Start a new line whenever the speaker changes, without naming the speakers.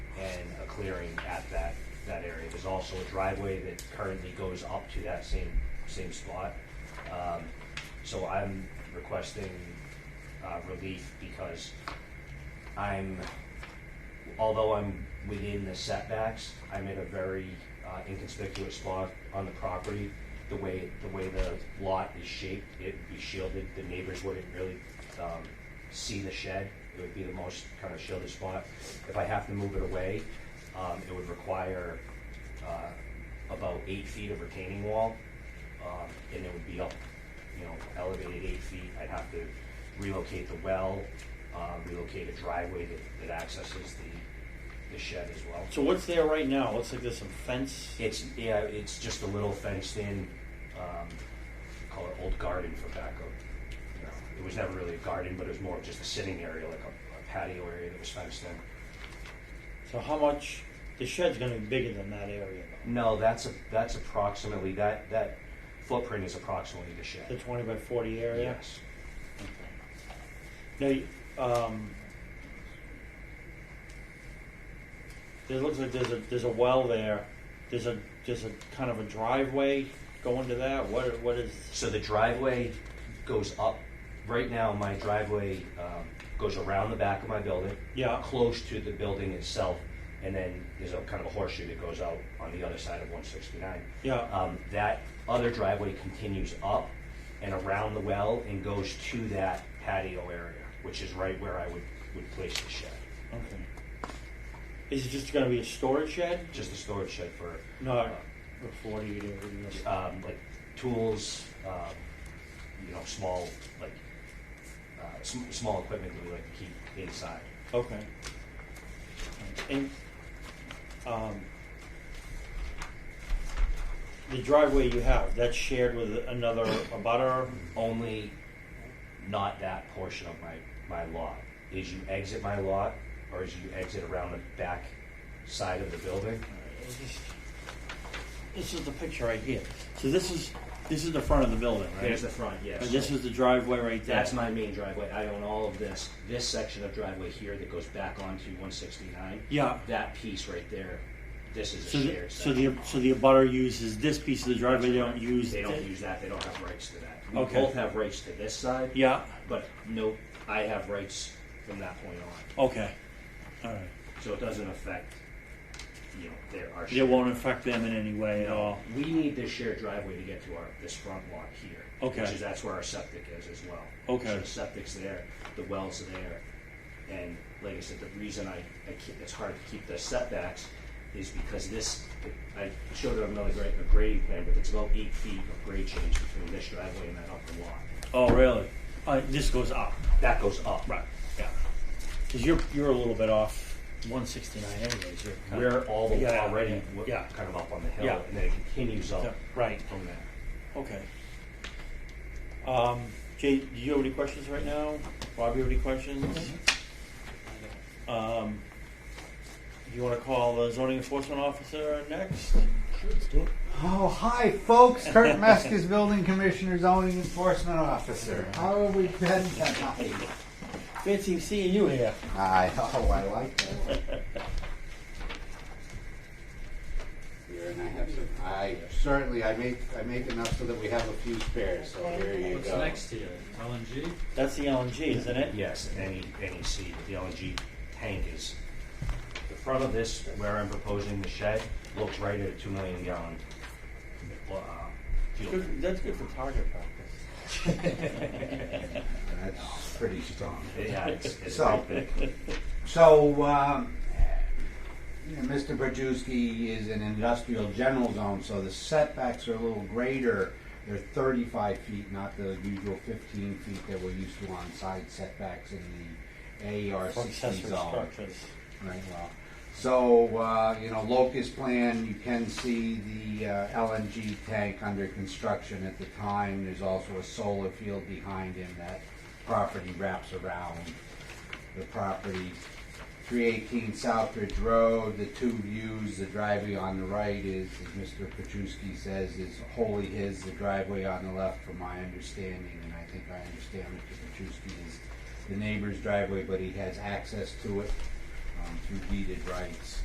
clearing at that, that area. There's also a driveway that currently goes up to that same, same spot. Um, So I'm requesting uh, relief because I'm, although I'm within the setbacks, I'm in a very uh, inconspicuous spot on the property. The way, the way the lot is shaped, it'd be shielded, the neighbors wouldn't really um, see the shed. It would be the most kind of shielded spot. If I have to move it away, um, it would require uh, about eight feet of retaining wall, um, and it would be up, you know, elevated eight feet. I'd have to relocate the well, uh, relocate a driveway that, that accesses the, the shed as well.
So what's there right now? Looks like there's some fence.
It's, yeah, it's just a little fenced in, um, call it old garden for backup. You know, it was never really a garden, but it was more of just a sitting area, like a a patio area that was fenced in.
So how much? The shed's gonna be bigger than that area.
No, that's, a that's approximately, that, that footprint is approximately the
though. The
shed.
twenty by forty area.
Yes.
Now, um, there looks like there's a there's a well there. There's a there's a kind of a driveway going to that. What what is?
So the driveway goes up, right now, my driveway, um, goes around the back of my building.
Yeah.
Close to the building itself, and then there's a kind of a horseshoe that goes out on the other side of one sixty-nine.
Yeah.
Um, that other driveway continues up and around the well and goes to that patio area, which is right where I would, would place the shed.
Okay. Is it just gonna be a storage shed?
Just a storage shed for, uh,
Not a forty to. you know.
um, like tools, um, you know, small, like, uh, sm- small equipment that we like to keep inside.
Okay. And, um, the driveway you have, that's shared with another abutter?
Only not that portion of my, my lot. As you exit my lot, or as you exit around the back side of the building,
It's just- This is the picture right here. So this is, this is the front of the building, right?
there's the front, yes.
And this is the driveway right there.
That's my main driveway. I own all of this. This section of driveway here that goes back onto 169.
Yeah.
That piece right there, this is
So
a
the,
shared
so
section.
the, so the abutter uses this piece of the driveway, they don't use.
They don't
thi-
use that. They don't have rights to that. We
Okay.
both have rights to this side.
Yeah,
But no, I have rights from that point on.
okay, alright.
So it doesn't affect, you know, their, our
It
shared.
won't affect them in any way at all.
We need this shared driveway to get to our, this front lot here.
Okay.
Which is, that's where our septic is as well.
Okay.
So the septic's there, the well's there, and like I said, the reason I, I keep, it's hard to keep the setbacks is because this, I showed it on another grade, a grading plan, but it's about eight feet of grade change between this driveway and that upper lot.
Oh, really? Uh, this goes up.
That goes up.
Right.
Yeah.
Because you're, you're a little bit off 169 anyways. You're kind of-
We're all the,
Yeah,
already,
yeah,
w-
yeah.
kind of up on the
Yeah.
hill, and then it continues
Yeah,
up
right.
from there.
Okay. Um, Jay, do you have any questions right now? Rob, you have any questions? Um, you want to call the zoning enforcement officer next?
Oh, hi, folks. Kurt Meskis, Building Commissioner, Zoning Enforcement Officer. How have we been tonight?
Fancy seeing you here.
Hi. Oh, I like that one. Here, and I have some. I certainly, I make, I make enough so that we have a few spares. So here you
What's
go.
next to you? LNG?
That's the LNG, isn't it?
Yes, any, any seed, the LNG tank is, the front of this, where I'm proposing the shed, looks right at a two million gallon, uh, fuel. tank.
Good, that's good for target practice.
That's pretty strong.
Yeah, it's, it's
So-
right big.
So, um, you know, Mr. Brzezinski is an industrial general zone, so the setbacks are a little greater. They're 35 feet, not the usual 15 feet that we're used to on side setbacks in the AR
For
60
accessory
zone.
structures.
Right, well, so, uh, you know, locust plan, you can see the uh, LNG tank under construction at the time. There's also a solar field behind him that property wraps around the property. Three eighteen Southbridge Road, the two views, the driveway on the right is, as Mr. Petruski says, is wholly his, the driveway on the left, from my understanding, and I think I understand Mr. Petruski is the neighbor's driveway, but he has access to it um, through deeded rights.